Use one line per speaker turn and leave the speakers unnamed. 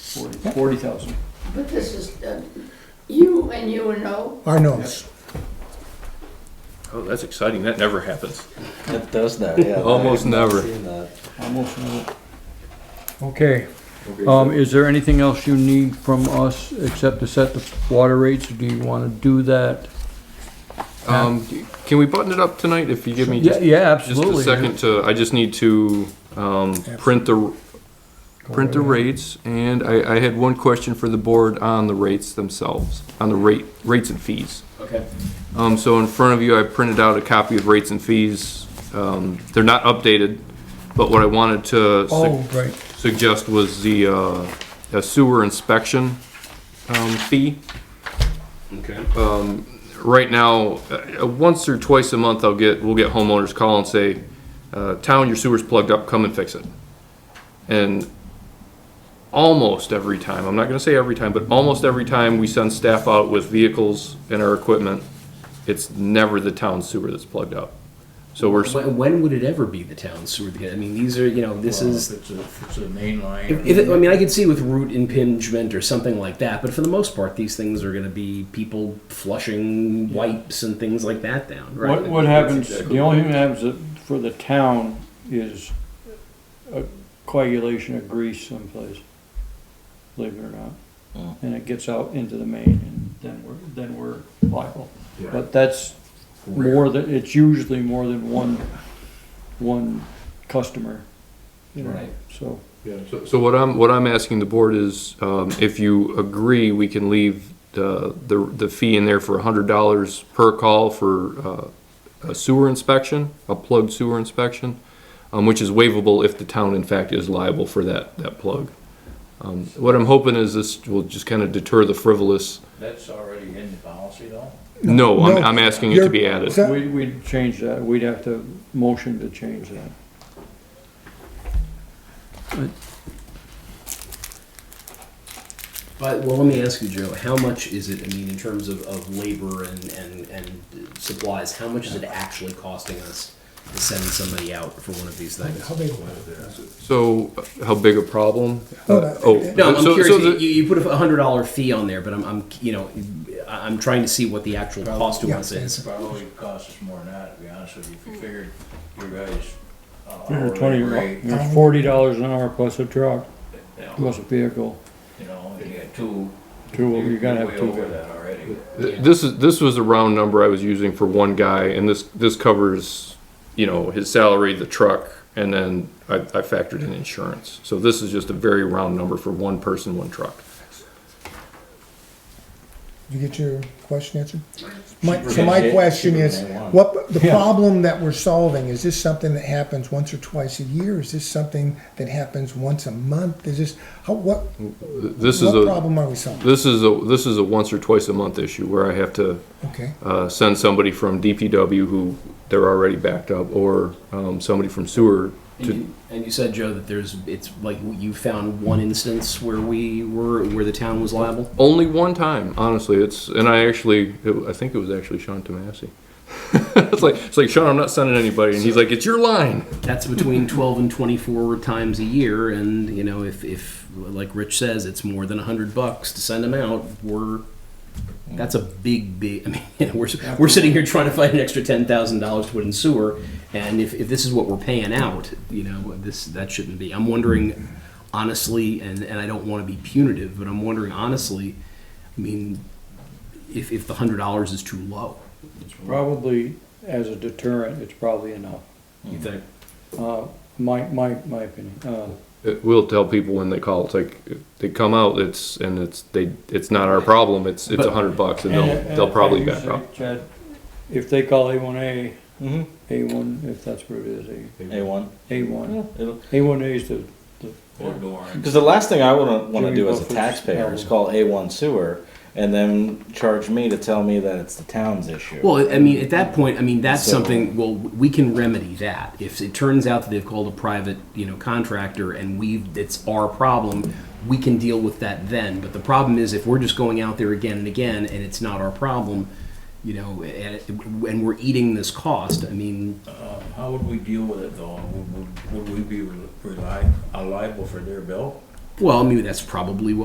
forty thousand.
But this is, uh, you and you and O,
Our notes.
Oh, that's exciting. That never happens.
It does that, yeah.
Almost
I've not
never.
seen that.
Almost, uh,
Okay, um, is there anything else you need from us except to set the water rates? Do you wanna do that?
Um, can we button it up tonight if you give me
Yeah,
just,
yeah,
just
absolutely.
a second to, I just need to, um, print the, print the rates. And I, I had one question for the board on the rates themselves, on the rate, rates and fees.
okay.
Um, so in front of you, I printed out a copy of rates and fees. Um, they're not updated, but what I wanted to sug-
Oh, right,
Uh, suggest was the, uh, a sewer inspection, um, fee. Um,
Okay.
right now, uh, once or twice a month, I'll get, we'll get homeowners call and say, uh, town, your sewer's plugged up, come and fix it. And almost every time, I'm not gonna say every time, but almost every time we send staff out with vehicles and our equipment, it's never the town sewer that's plugged up. So we're, s-
When, when would it ever be the town sewer? I mean, these are you know this
Well,
is.
If it's a, if it's a main line.
If, if it, I mean, I could see with root impingement or something like that, but for the most part, these things are going to be people flushing wipes and things like that down. Right?
What, what happens, the only thing that happens that- for the town is a coagulation of grease someplace, believe it or not.
Oh.
And it gets out into the main and then we're, then we're liable. But that's more than, it's usually more than one, one customer, you know, so.
so- so what I'm, what I'm asking the board is, um, if you agree, we can leave the, the, the fee in there for a hundred dollars per call for, uh, a sewer inspection, a plugged sewer inspection, um, which is waivable if the town in fact is liable for that, that plug. Um, what I'm hoping is this will just kind of deter the frivolous,
That's already in the policy though?
no, I'm,
No.
I'm asking it to be added.
You're-
We, we'd change that, we'd have to motion to change that.
But well, let me ask you, Joe. How much is it? I mean, in terms of, of labor and, and and supplies, how much is it actually costing us to send somebody out for one of these things?
How big?
So, how big a problem?
No, no.
Oh,
No, I'm
so- so
curious.
the-
you, you put a hundred dollar fee on there, but I'm, I'm, you know, I- I'm trying to see what the actual cost to
Yeah,
us is.
Probably cost us more than that, to be honest with you, if you figured your guys. uh,
Hundred
hourly
twenty,
rate,
it's forty dollars an hour plus a truck,
you know,
plus a vehicle,
You know, you got two.
two, you're gonna have
way
two.
Over that already.
Th- This is, this was a round number I was using for one guy, and this, this covers, you know, his salary, the truck, and then I, I factored in insurance. So this is just a very round number for one person, one truck.
Did you get your question answered? My, so my question is, what, the problem that we're solving, is this something that happens once or twice a year? Is this something that happens once a month? Is this, how, what,
Th- This is
what
a,
problem are we solving?
this is a, this is a once or twice a month issue where I have to,
Okay,
uh, send somebody from DPW who they're already backed up, or, um, somebody from sewer
And
to,
you, and you said, Joe, that there's, it's like you found one instance where we were, where the town was liable.
only one time, honestly. It's, and I actually, it, I think it was actually Sean Tomasi. It's like, it's like, Sean, I'm not sending anybody, and he's like, it's your line.
That's between twelve and twenty-four times a year, and you know, if, if like Rich says, it's more than a hundred bucks to send them out, we're. That's a big, big. I mean, we're we're sitting here trying to find an extra ten thousand dollars to put in sewer, and if, if this is what we're paying out, you know, this that shouldn't be. I'm wondering, honestly, and and I don't want to be punitive, but I'm wondering honestly. I mean, if if the hundred dollars is too low,
Probably, as a deterrent, it's probably enough,
you think?
uh, my, my, my opinion, uh,
It will tell people when they call. It's like they come out. It's and it's they. It's not our problem. It's it's a
But-
hundred bucks, and
And-
they'll
and
they'll probably
like you
back
say,
up.
Chad, If they call A one A,
Mhm.
A one, if that's what it is,
A1.
A, A one,
It'll-
A one A is the, the,
Or Doran.
Because the last thing I wouldn't want to
Jimmy
do as a
Buffett's
taxpayer is
album.
call A1 sewer and then charge me to tell me that it's the town's issue.
Well, I mean, at that point, I mean, that's
So-
something, well, we can remedy that. If it turns out that they've called a private, you know, contractor and we've, it's our problem, we can deal with that then. But the problem is if we're just going out there again and again and it's not our problem, you know, and, it- and we're eating this cost, I mean,
Uh, How would we deal with it though? Would, would- would we be reli- reli- liable for their bill?
well, I mean, that's probably what